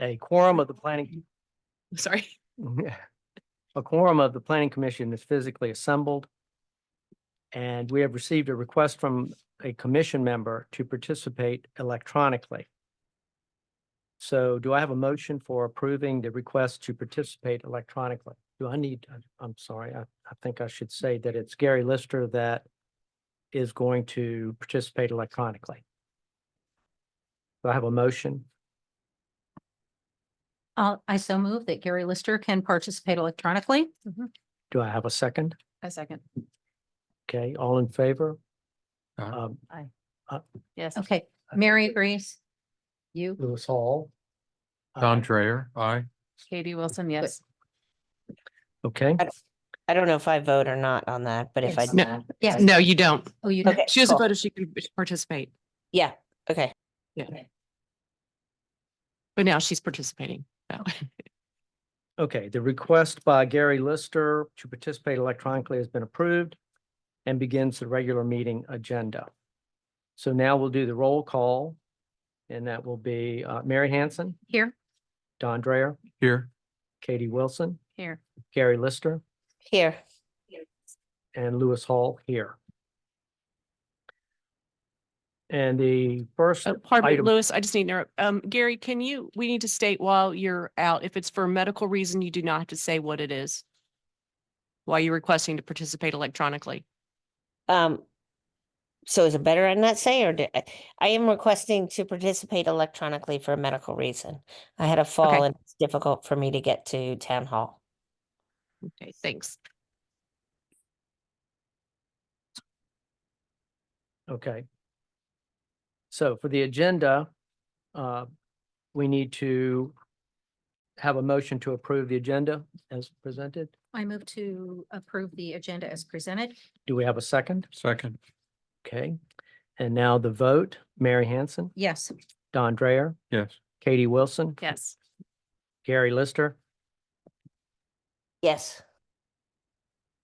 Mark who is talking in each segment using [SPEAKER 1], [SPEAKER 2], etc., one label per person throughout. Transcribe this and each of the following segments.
[SPEAKER 1] a quorum of the planning,
[SPEAKER 2] Sorry.
[SPEAKER 1] a quorum of the planning commission is physically assembled. And we have received a request from a commission member to participate electronically. So do I have a motion for approving the request to participate electronically? Do I need, I'm- I'm sorry, I, I think I should say that it's Gary Lister that is going to participate electronically. Do I have a motion?
[SPEAKER 3] Uh, I so move that Gary Lister can participate electronically.
[SPEAKER 1] Do I have a second?
[SPEAKER 2] A Mm-hmm. second.
[SPEAKER 1] Okay, all in favor?
[SPEAKER 4] Aye.
[SPEAKER 1] Um,
[SPEAKER 2] Yes.
[SPEAKER 3] Okay, Mary agrees. You,
[SPEAKER 1] Lewis Hall.
[SPEAKER 4] Don
[SPEAKER 1] Aye.
[SPEAKER 4] Dreyer, aye.
[SPEAKER 2] Katie Wilson, yes.
[SPEAKER 1] Okay,
[SPEAKER 5] I don't know if I vote or not on that, but if I,
[SPEAKER 3] Yes.
[SPEAKER 2] No.
[SPEAKER 3] yes.
[SPEAKER 2] No, you don't.
[SPEAKER 3] Oh, you,
[SPEAKER 5] okay.
[SPEAKER 2] She doesn't
[SPEAKER 5] cool.
[SPEAKER 2] vote if she can participate,
[SPEAKER 5] Yeah, okay.
[SPEAKER 2] but now she's participating. So,
[SPEAKER 1] okay. The request by Gary Lister to participate electronically has been approved and begins the regular meeting agenda. So now we'll do the roll call. And that will be uh, Mary Hanson,
[SPEAKER 3] here,
[SPEAKER 1] Don Dreyer,
[SPEAKER 4] Here,
[SPEAKER 1] Katie Wilson,
[SPEAKER 2] Here.
[SPEAKER 1] Gary Lister,
[SPEAKER 5] Here,
[SPEAKER 1] and Lewis Hall here. And the first,
[SPEAKER 2] Uh, Pardon me,
[SPEAKER 1] Item-
[SPEAKER 2] Louis, I just need to, interrupt. um, Gary, can you, we need to state while you're out, if it's for a medical reason, you do not have to say what it is. While you're requesting to participate electronically.
[SPEAKER 5] um, so is it better I not say or do- I am requesting to participate electronically for a medical reason. I had a fall
[SPEAKER 2] Okay.
[SPEAKER 5] and it's difficult for me to get to town hall.
[SPEAKER 2] Okay, thanks.
[SPEAKER 1] Okay. So for the agenda, uh, we need to have a motion to approve the agenda as presented.
[SPEAKER 3] I move to approve the agenda as presented.
[SPEAKER 1] Do we have a second?
[SPEAKER 4] second,
[SPEAKER 1] Okay. And now the vote, Mary Hanson,
[SPEAKER 3] Yes,
[SPEAKER 1] Don Dreyer,
[SPEAKER 4] yes.
[SPEAKER 1] Katie Wilson,
[SPEAKER 2] Yes.
[SPEAKER 1] Gary Lister,
[SPEAKER 5] Yes,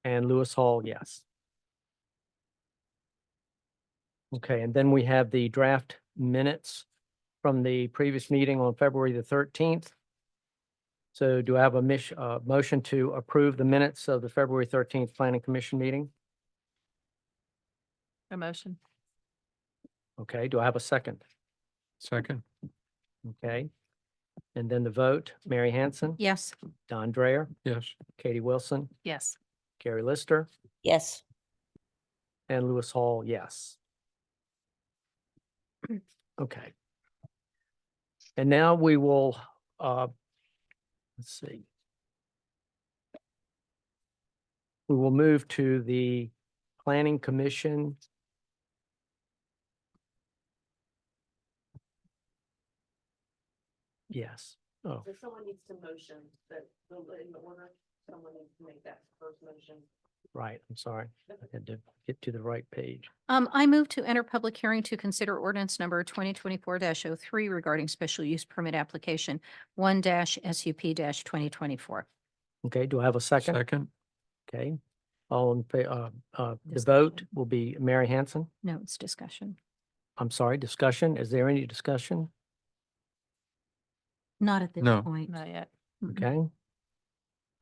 [SPEAKER 1] and Lewis Hall, yes. Okay, and then we have the draft minutes from the previous meeting on February the thirteenth. So do I have a mish, uh, motion to approve the minutes of the February thirteenth Planning Commission meeting?
[SPEAKER 2] A motion.
[SPEAKER 1] Okay, do I have a second?
[SPEAKER 4] Second,
[SPEAKER 1] Okay. And then the vote, Mary Hanson,
[SPEAKER 3] yes,
[SPEAKER 1] Don Dreyer,
[SPEAKER 4] yes.
[SPEAKER 1] Katie Wilson,
[SPEAKER 2] Yes.
[SPEAKER 1] Gary Lister,
[SPEAKER 5] yes,
[SPEAKER 1] And Lewis Hall, yes. Okay. And now we will, uh, let's see. We will move to the Planning Commission. Yes, oh,
[SPEAKER 6] So someone needs to motion that, the- in the order, someone needs to make that first motion.
[SPEAKER 1] right, I'm sorry. I had to get to the right page.
[SPEAKER 3] um, I move to enter public hearing to consider ordinance number twenty twenty-four 3 regarding special use permit application one SUP twenty twenty-four.
[SPEAKER 1] Okay, do I have a second?
[SPEAKER 4] Second,
[SPEAKER 1] Okay, all in, fa- uh, uh, the vote will be Mary Hanson.
[SPEAKER 3] No, it's discussion,
[SPEAKER 1] I'm sorry, discussion. Is there any discussion?
[SPEAKER 3] not at this
[SPEAKER 4] No.
[SPEAKER 3] point.
[SPEAKER 2] Not yet.
[SPEAKER 3] Mm-mm.
[SPEAKER 1] Okay.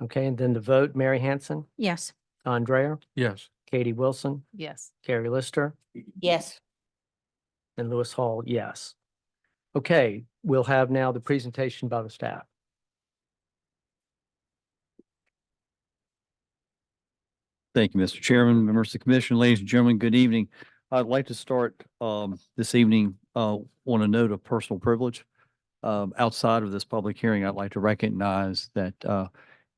[SPEAKER 1] Okay, and then the vote, Mary Hanson,
[SPEAKER 3] Yes,
[SPEAKER 1] Don Dreyer,
[SPEAKER 4] yes.
[SPEAKER 1] Katie Wilson,
[SPEAKER 2] Yes.
[SPEAKER 1] Carrie Lister,
[SPEAKER 5] yes,
[SPEAKER 1] and Lewis Hall, yes. Okay, we'll have now the presentation by the staff.
[SPEAKER 7] Thank you, Mr. Chairman, members of the commission, ladies and gentlemen, good evening. I'd like to start um, this evening uh, on a note of personal privilege. Um, Outside of this public hearing, I'd like to recognize that uh,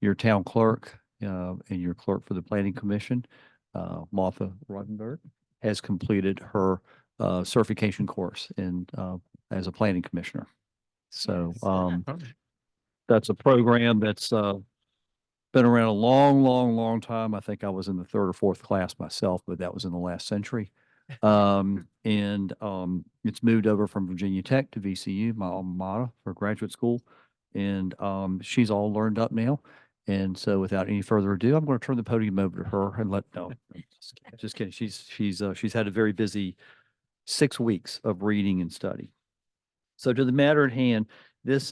[SPEAKER 7] your town clerk uh, and your clerk for the planning commission, uh, Martha Rodenberg, has completed her uh, certification course in, uh, as a planning commissioner. So
[SPEAKER 2] Yes.
[SPEAKER 7] um,
[SPEAKER 4] Oh,
[SPEAKER 7] that's a program that's uh been around a long, long, long time. I think I was in the third or fourth class myself, but that was in the last century. Um, and um, it's moved over from Virginia Tech to VCU, my alma mater for graduate school. And um, she's all learned up now. And so without any further ado, I'm going to turn the podium over to her and let, no, just kidding, just kidding. She's, she's, uh, she's had a very busy six weeks of reading and study. So to the matter at hand, this